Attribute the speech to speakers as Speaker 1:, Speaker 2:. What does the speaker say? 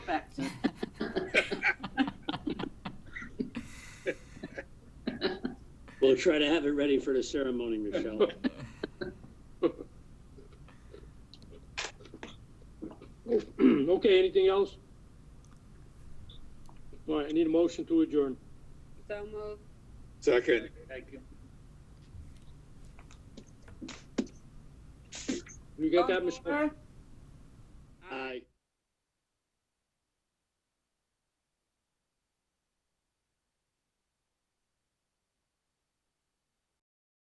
Speaker 1: will try to have it ready for the ceremony, Michelle.
Speaker 2: Okay, anything else? All right, I need a motion to adjourn.
Speaker 3: So moved.
Speaker 4: Second.
Speaker 2: You got that, Michelle?
Speaker 3: All in favor?
Speaker 1: Uh,